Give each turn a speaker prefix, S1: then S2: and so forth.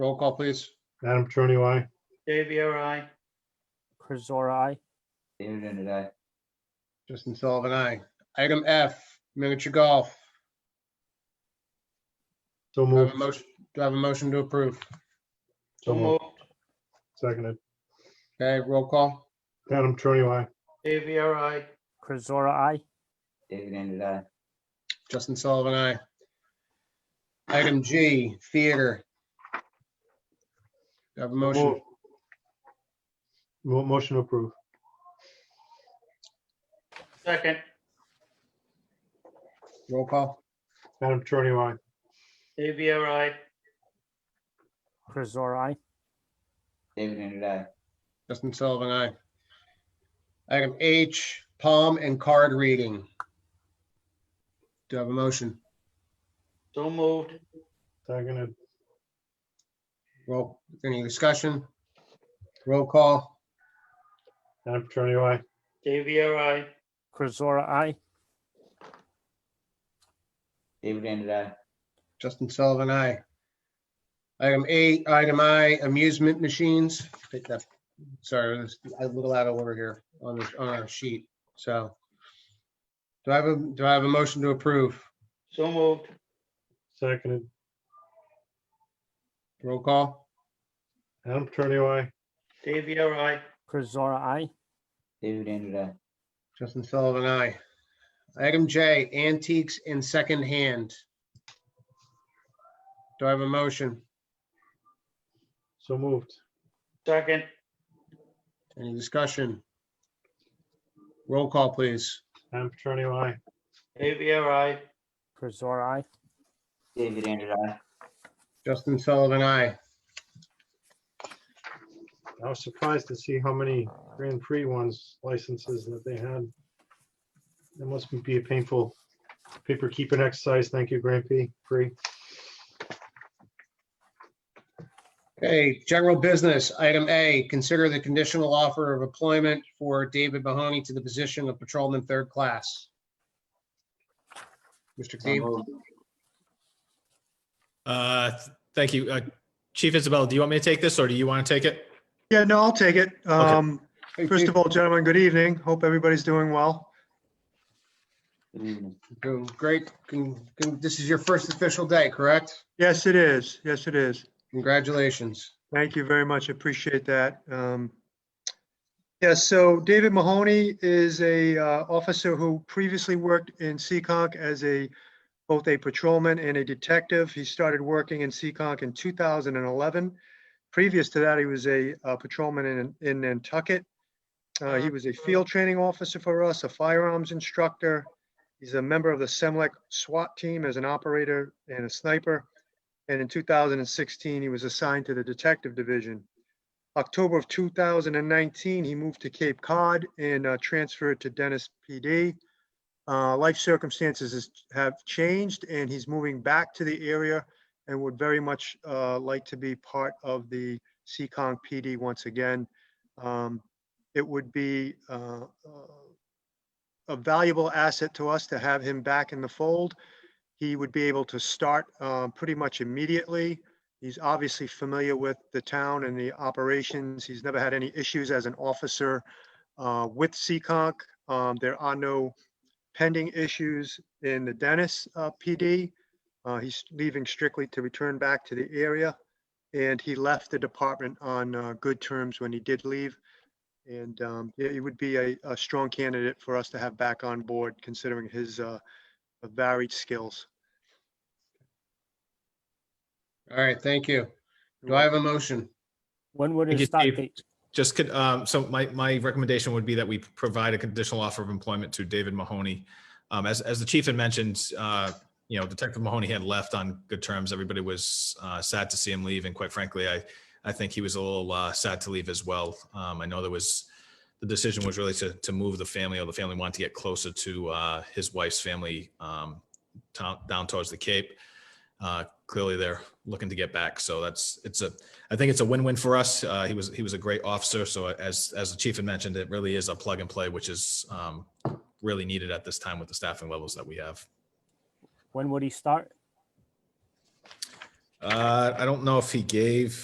S1: Roll call, please.
S2: Adam Trony, I.
S3: Dave, you're aye.
S4: Chris Zora, aye.
S5: David and I.
S1: Justin Sullivan, aye. Item F, miniature golf.
S2: So
S1: Do I have
S2: moved,
S1: a motion, do I have a motion to approve?
S3: So
S2: so moved,
S3: moved.
S2: seconded.
S1: Okay, roll call.
S2: Adam Trony, I.
S3: Dave, you're aye.
S4: Chris Zora, aye.
S5: David and I.
S1: Justin Sullivan, aye. Item G, theater. Do I have a motion?
S2: Mo- mo- Motion to approve.
S3: Second,
S1: Roll call.
S2: Adam Trony, I.
S3: Dave, you're aye.
S4: Chris Zora, aye.
S5: David and I.
S1: Justin Sullivan, aye. Item H, palm and card reading. Do I have a motion?
S3: So moved.
S2: Seconded.
S1: Roll, any discussion? Roll call.
S2: Adam Trony, I.
S3: Dave, you're aye.
S4: Chris Zora, aye.
S5: David and I.
S1: Justin Sullivan, aye. Item A, item I, amusement machines. Pick that- Sorry, this- I'm a little out of order here on this, on our sheet, so. Do I have a, do I have a motion to approve?
S3: So moved.
S2: Seconded.
S1: Roll call.
S2: Adam Trony, I.
S3: Dave, you're aye.
S4: Chris Zora, aye.
S5: David and I.
S1: Justin Sullivan, aye. Item J, antiques and secondhand. Do I have a motion?
S2: So moved.
S3: Second,
S1: Any discussion? Roll call, please.
S2: Adam Trony, I.
S3: Dave, you're aye.
S4: Chris Zora, aye.
S5: David and I.
S1: Justin Sullivan, aye.
S2: I was surprised to see how many Grand Prix ones licenses that they had. It must be a painful paper keeping exercise. Thank you, Grand Prix. Prix.
S1: Okay, general business, item A, consider the conditional offer of employment for David Mahoney to the position of patrolman third class. Mr.
S5: So
S1: Cleve,
S5: moved.
S6: Uh, th- Thank you. Uh, Chief Isabella, do you want me to take this or do you want to take it?
S7: Yeah, no, I'll take it. Um,
S1: hey,
S7: First
S1: Chief,
S7: of all, gentlemen, good evening. Hope everybody's doing well.
S5: Good evening.
S1: doing great, Con- con- this is your first official day, correct?
S7: Yes, it is. Yes, it is.
S1: Congratulations.
S7: Thank you very much. Appreciate that. Um, Yes, so David Mahoney is a uh, officer who previously worked in Seekonk as a, both a patrolman and a detective. He started working in Seekonk in 2011. Previous to that, he was a uh, patrolman in, in Nantucket. Uh, He was a field training officer for us, a firearms instructor. He's a member of the Semlec SWAT team as an operator and a sniper. And in 2016, he was assigned to the Detective Division. October of 2019, he moved to Cape Cod and uh, transferred to Dennis PD. Uh, Life circumstances has- have changed and he's moving back to the area and would very much uh, like to be part of the Seekonk PD once again. Um, It would be uh, uh, a valuable asset to us to have him back in the fold he would be able to start um, pretty much immediately. He's obviously familiar with the town and the operations. He's never had any issues as an officer uh, with Seekonk. Um, There are no pending issues in the Dennis uh, PD. Uh, He's leaving strictly to return back to the area. And he left the department on uh, good terms when he did leave. And um, yeah, he would be a a strong candidate for us to have back on board considering his uh, varied skills.
S1: All right, thank you. Do I have a motion?
S4: When would
S6: Thank
S4: his
S6: you,
S4: start
S6: Steve.
S4: date?
S6: Just could, um, so my, my recommendation would be that we provide a conditional offer of employment to David Mahoney. Um, as, as the chief had mentioned, uh, you know, Detective Mahoney had left on good terms. Everybody was, uh, sad to see him leave. And quite frankly, I, I think he was a little, uh, sad to leave as well. Um, I know there was, the decision was really to, to move the family or the family wanted to get closer to, uh, his wife's family, um, town, down towards the Cape. Uh, clearly they're looking to get back. So that's, it's a, I think it's a win-win for us. Uh, he was he was a great officer. So as as the chief had mentioned, it really is a plug and play, which is um, really needed at this time with the staffing levels that we have.
S4: When would he start?
S6: Uh, I don't know if he gave